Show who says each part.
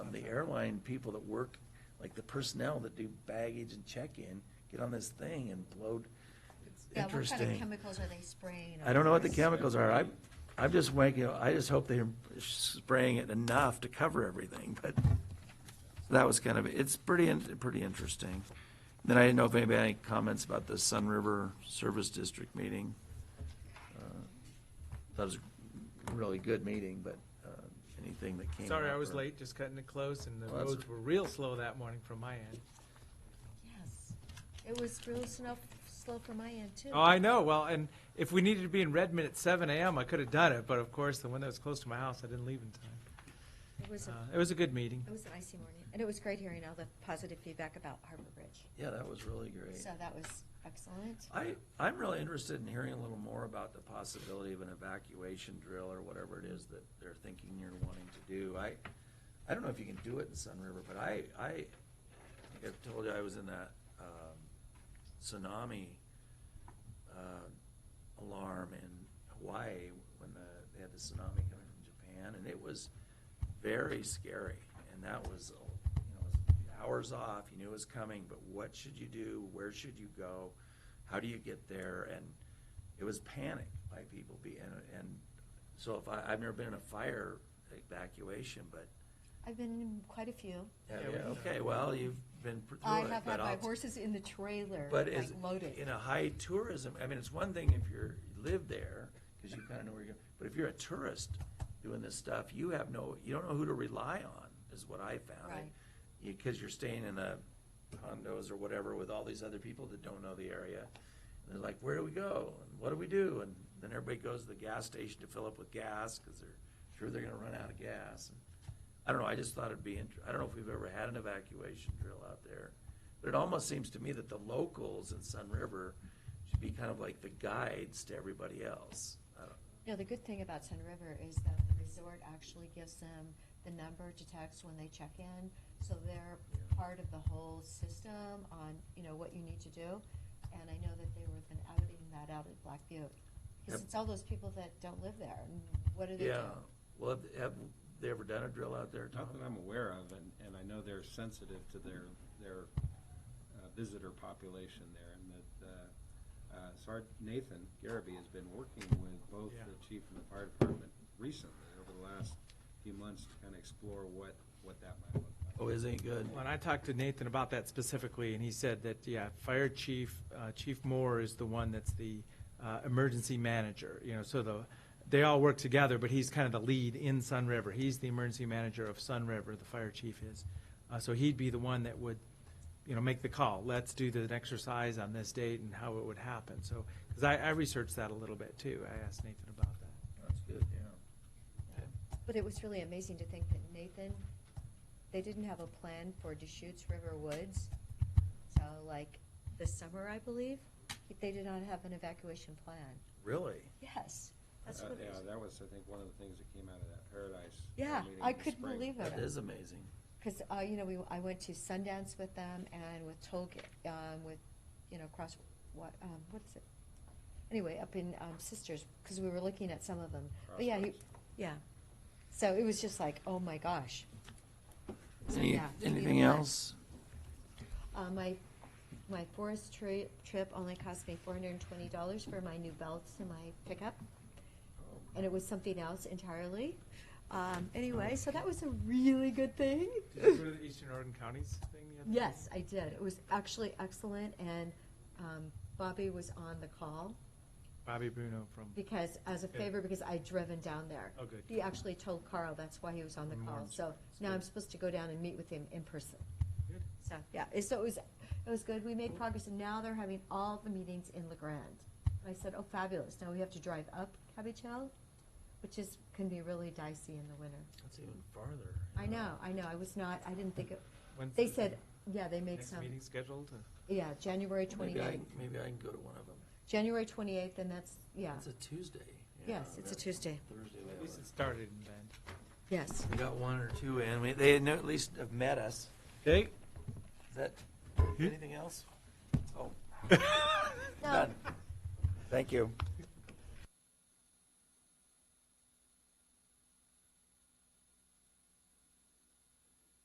Speaker 1: the airline people that work, like the personnel that do baggage and check-in, get on this thing and blow. It's
Speaker 2: Yeah, what kind of
Speaker 1: interesting.
Speaker 2: chemicals are they spraying?
Speaker 1: I don't know what the
Speaker 2: on
Speaker 1: chemicals are. I, I'm just wanking, I just hope they're spraying it enough to cover everything, but that was kind of, it's pretty, in- pretty interesting. Then I didn't know if anybody had any comments about the Sun River Service District meeting. Uh, That was a really good meeting, but uh, anything that came
Speaker 3: Sorry,
Speaker 1: up
Speaker 3: I was
Speaker 1: or-
Speaker 3: late, just cutting it close, and the
Speaker 1: Well, that's-
Speaker 3: roads were real slow that morning from my end.
Speaker 2: Yes, it was really slow, slow from my end too.
Speaker 3: Oh, I know, well, and if we needed to be in Redmond at seven AM, I could have done it, but of course, the one that was close to my house, I didn't leave in time.
Speaker 2: It was, a-
Speaker 3: Uh, It was a good meeting.
Speaker 2: it was an icy morning, and it was great hearing all the positive feedback about Harbor Bridge.
Speaker 1: Yeah, that was really great.
Speaker 2: So that was excellent.
Speaker 1: I, I'm really interested in hearing a little more about the possibility of an evacuation drill or whatever it is that they're thinking you're wanting to do. I, I don't know if you can do it in Sun River, but I, I, I think I've told you I was in that, um, tsunami, uh, alarm in Hawaii when the, they had the tsunami coming from Japan, and it was very scary. And that was, you know, hours off, you knew it was coming, but what should you do? Where should you go? How do you get there? And it was panic by people being, and so if I, I've never been in a fire evacuation, but,
Speaker 2: I've been in quite a few.
Speaker 1: yeah,
Speaker 3: Yeah, we know.
Speaker 1: okay, well, you've been through it.
Speaker 2: I have
Speaker 1: but
Speaker 2: had my
Speaker 1: I'll-
Speaker 2: horses in the trailer,
Speaker 1: but
Speaker 2: like
Speaker 1: is,
Speaker 2: loaded.
Speaker 1: in a high tourism, I mean, it's one thing if you're, you live there, because you kind of know where you're going, but if you're a tourist doing this stuff, you have no, you don't know who to rely on, is what I found.
Speaker 2: Right.
Speaker 1: Because you're staying in a condos or whatever with all these other people that don't know the area. And they're like, where do we go? And what do we do? And then everybody goes to the gas station to fill up with gas, because they're sure they're gonna run out of gas. And I don't know, I just thought it'd be, int- I don't know if we've ever had an evacuation drill out there. But it almost seems to me that the locals in Sun River should be kind of like the guides to everybody else. I don't-
Speaker 2: No, the good thing about Sun River is that the resort actually gives them the number to text when they check in, so they're
Speaker 1: Yeah.
Speaker 2: part of the whole system on, you know, what you need to do. And I know that they were then outing that out at Black Butte, because
Speaker 1: Yep.
Speaker 2: it's all those people that don't live there, and what do they do?
Speaker 1: Yeah, well, have- have they ever done a drill out there,
Speaker 4: Not that
Speaker 1: Tom?
Speaker 4: I'm aware of, and, and I know they're sensitive to their, their uh, visitor population there, and that, uh, uh, Sergeant Nathan Garraby has been working with both
Speaker 3: Yeah.
Speaker 4: the chief and the fire department recently, over the last few months, to kind of explore what, what that might look like.
Speaker 1: Oh, is it good?
Speaker 3: When I talked to Nathan about that specifically, and he said that, yeah, Fire Chief, uh, Chief Moore is the one that's the uh, emergency manager, you know, so the, they all work together, but he's kind of the lead in Sun River. He's the emergency manager of Sun River, the fire chief is. Uh, So he'd be the one that would, you know, make the call. Let's do the exercise on this date and how it would happen. So, because I, I researched that a little bit too. I asked Nathan about that.
Speaker 1: That's good, yeah. Okay.
Speaker 2: But it was really amazing to think that Nathan, they didn't have a plan for Deschutes River Woods. So like this summer, I believe, they did not have an evacuation plan.
Speaker 1: Really?
Speaker 2: Yes, that's
Speaker 4: Uh,
Speaker 2: what it
Speaker 4: Yeah,
Speaker 2: is.
Speaker 4: that was, I think, one of the things that came out of that Paradise. uh,
Speaker 2: Yeah,
Speaker 4: meeting
Speaker 2: I
Speaker 4: in the
Speaker 2: couldn't
Speaker 4: spring.
Speaker 2: believe
Speaker 1: That
Speaker 2: it.
Speaker 1: is amazing.
Speaker 2: Because, uh, you know, we, I went to Sundance with them and with Tolkien, um, with, you know, cross, what, um, what is it? Anyway, up in, um, Sisters, because we were looking at some of them. But yeah, he,
Speaker 4: Crossroads.
Speaker 2: yeah. So it was just like, oh my gosh. So,
Speaker 1: Any-
Speaker 2: yeah, we need a
Speaker 1: Anything
Speaker 2: plan.
Speaker 1: else?
Speaker 2: Uh, my, my forest tri- trip only cost me four hundred and twenty dollars for my new belts and my pickup. And it was something else entirely. Um, anyway, so that was a really good thing.
Speaker 3: Did you go to the Eastern Oregon Counties thing the other day?
Speaker 2: Yes, I did. It was actually excellent and, um, Bobby was on the call
Speaker 3: Bobby Bruno from,
Speaker 2: because, as a
Speaker 3: Good.
Speaker 2: favor, because I'd driven down there.
Speaker 3: oh, good.
Speaker 2: He actually told Carl, that's why he was on the
Speaker 3: From
Speaker 2: call.
Speaker 3: Lawrence.
Speaker 2: So now
Speaker 3: good.
Speaker 2: I'm supposed to go down and meet with him in person.
Speaker 3: Good.
Speaker 2: So, yeah, it- so it was, it was good. We made progress and now they're having all the meetings in La Grande. And I said, oh, fabulous. Now we have to drive up Cabbage Hill, which is, can be really dicey in the winter.
Speaker 1: That's even farther.
Speaker 2: I know, I know. I was not, I didn't think it,
Speaker 3: When's
Speaker 2: they
Speaker 3: the
Speaker 2: said, yeah, they made
Speaker 3: Next
Speaker 2: some,
Speaker 3: meeting scheduled? or-
Speaker 2: yeah, January
Speaker 1: Maybe I,
Speaker 2: twenty-eighth.
Speaker 1: maybe I can go to one of them.
Speaker 2: January twenty-eighth and that's, yeah,
Speaker 1: It's a Tuesday. Yeah,
Speaker 2: yes, it's a
Speaker 1: that's
Speaker 2: Tuesday.
Speaker 1: Thursday. we
Speaker 3: At
Speaker 1: have
Speaker 3: least
Speaker 1: a-
Speaker 3: it started in Bend.
Speaker 2: Yes.
Speaker 1: We got one or two in. We- They had no- at least have met us.
Speaker 3: Okay.
Speaker 1: Is that, anything else? Oh,
Speaker 2: No,
Speaker 1: done. Thank you.